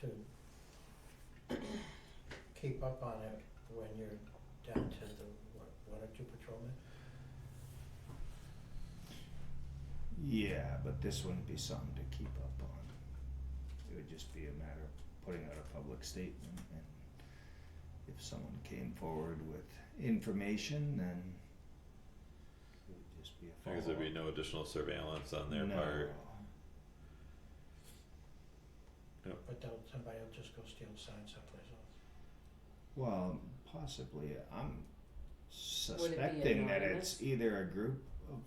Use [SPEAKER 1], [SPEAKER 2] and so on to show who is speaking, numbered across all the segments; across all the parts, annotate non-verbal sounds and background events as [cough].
[SPEAKER 1] to keep up on it when you're down to the, what, one or two patrolmen?
[SPEAKER 2] Yeah, but this wouldn't be something to keep up on. It would just be a matter of putting out a public statement and if someone came forward with information, then it would just be a follow-up.
[SPEAKER 3] Because there'd be no additional surveillance on their
[SPEAKER 2] No.
[SPEAKER 3] part.
[SPEAKER 1] But they'll, somebody will just go steal a sign someplace else.
[SPEAKER 2] Well, possibly, I'm
[SPEAKER 4] Would it be
[SPEAKER 2] suspecting that
[SPEAKER 4] anonymous?
[SPEAKER 2] it's either a group of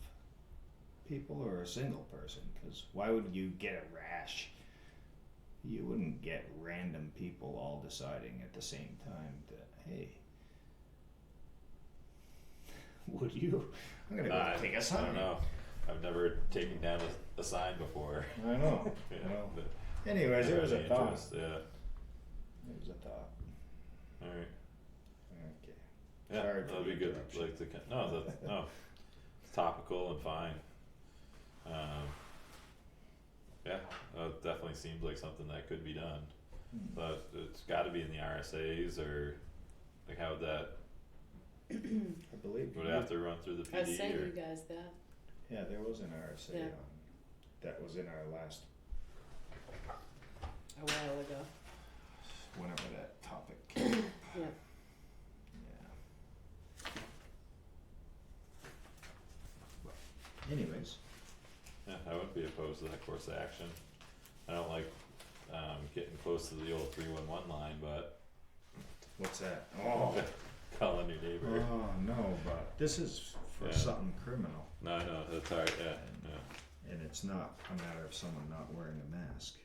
[SPEAKER 2] people or a single person, cause why would you get a rash? You wouldn't get random people all deciding at the same time that, hey, [laughs] would you? I'm gonna go
[SPEAKER 3] I,
[SPEAKER 2] take a
[SPEAKER 3] I
[SPEAKER 2] sign.
[SPEAKER 3] don't know. I've never taken down a, a sign before. [laughs]
[SPEAKER 2] I know,
[SPEAKER 3] Yeah,
[SPEAKER 2] Well,
[SPEAKER 3] but
[SPEAKER 2] anyways, it
[SPEAKER 3] never
[SPEAKER 2] was a
[SPEAKER 3] had any
[SPEAKER 2] thought,
[SPEAKER 3] interest, Yeah.
[SPEAKER 2] it was a thought,
[SPEAKER 3] All right.
[SPEAKER 2] okay,
[SPEAKER 3] Yeah,
[SPEAKER 2] Sorry for
[SPEAKER 3] that'd be
[SPEAKER 2] the
[SPEAKER 3] good.
[SPEAKER 2] interruption.
[SPEAKER 3] Like the con- no,
[SPEAKER 2] [laughs]
[SPEAKER 3] that's no, it's topical and fine. Um, yeah, uh, it definitely seems like something that could be done,
[SPEAKER 2] Hmm.
[SPEAKER 3] but it's got to be in the RSA's or like how would that
[SPEAKER 2] I believe.
[SPEAKER 3] would
[SPEAKER 2] you-
[SPEAKER 3] it have to run through the
[SPEAKER 4] I
[SPEAKER 3] PD
[SPEAKER 4] sent
[SPEAKER 3] or
[SPEAKER 4] you guys that.
[SPEAKER 2] Yeah, there was an RSA
[SPEAKER 4] Yeah.
[SPEAKER 2] on, that was in our last,
[SPEAKER 4] a while ago.
[SPEAKER 2] whenever that topic came up.
[SPEAKER 4] Yeah.
[SPEAKER 2] Yeah. Well, [coughs] Anyways,
[SPEAKER 3] yeah, I wouldn't be opposed to that course of action. I don't like um, getting close to the old three one one line, but [laughs]
[SPEAKER 2] what's that? Oh,
[SPEAKER 3] calling your neighbor.
[SPEAKER 2] [coughs] oh, no, but this is for
[SPEAKER 3] Yeah.
[SPEAKER 2] something criminal
[SPEAKER 3] No, no, that's all right. Yeah, yeah.
[SPEAKER 2] and it's not a matter of someone not wearing a mask.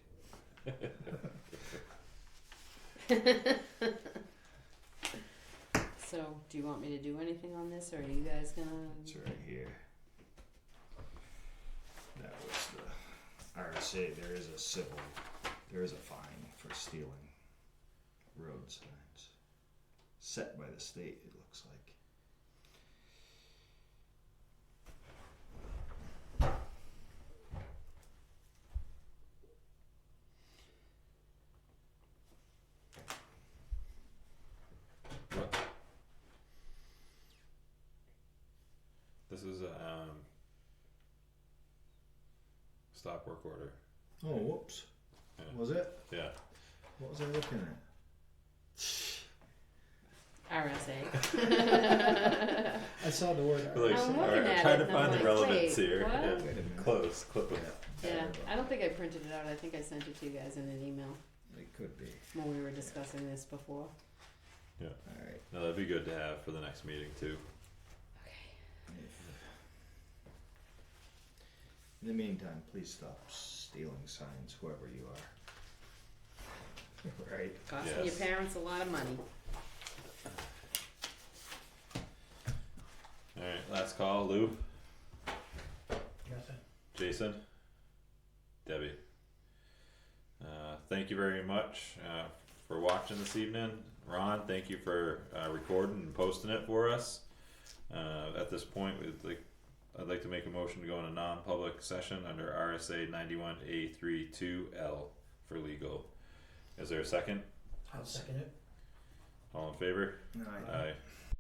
[SPEAKER 4] So, do you want me to do anything on this, or are you guys gonna?
[SPEAKER 2] It's right here. That was the RSA. There is a civil, there is a fine for stealing road signs. Set by the state, it looks like.
[SPEAKER 3] What? This is a um, stop work order.
[SPEAKER 2] Oh, whoops.
[SPEAKER 3] Yeah.
[SPEAKER 2] Was it?
[SPEAKER 3] Yeah.
[SPEAKER 2] What was I looking at?
[SPEAKER 4] RSA.
[SPEAKER 2] I saw the word
[SPEAKER 3] Really
[SPEAKER 4] I'm
[SPEAKER 3] should-
[SPEAKER 4] looking
[SPEAKER 3] all right,
[SPEAKER 4] at
[SPEAKER 3] trying
[SPEAKER 4] it
[SPEAKER 3] to
[SPEAKER 4] and I'm
[SPEAKER 3] find the
[SPEAKER 4] like,
[SPEAKER 3] relevance
[SPEAKER 4] wait,
[SPEAKER 3] here.
[SPEAKER 4] what?
[SPEAKER 3] Yeah.
[SPEAKER 2] Wait a minute.
[SPEAKER 3] Close, close.
[SPEAKER 4] yeah, I don't think I printed it out. I think I sent it to you guys in an email
[SPEAKER 2] It could be.
[SPEAKER 4] when we were discussing this before.
[SPEAKER 2] Alright.
[SPEAKER 3] No, that'd be good to have for the next meeting too.
[SPEAKER 4] Okay.
[SPEAKER 2] In the meantime, please stop stealing signs, whoever you are. [laughs] Right?
[SPEAKER 4] Costing
[SPEAKER 3] Yes.
[SPEAKER 4] your parents a lot of money.
[SPEAKER 3] All right, last call, Lou,
[SPEAKER 1] Nothing?
[SPEAKER 3] Jason, Debbie. Uh, thank you very much uh, for watching this evening, Ron. Thank you for uh, recording and posting it for us. Uh, at this point, we'd like I'd like to make a motion to go in a non-public session under RSA ninety-one A 32 L for legal. Is there a second?
[SPEAKER 1] I'll second it.
[SPEAKER 3] All in favor?
[SPEAKER 2] No, I-
[SPEAKER 3] Aye.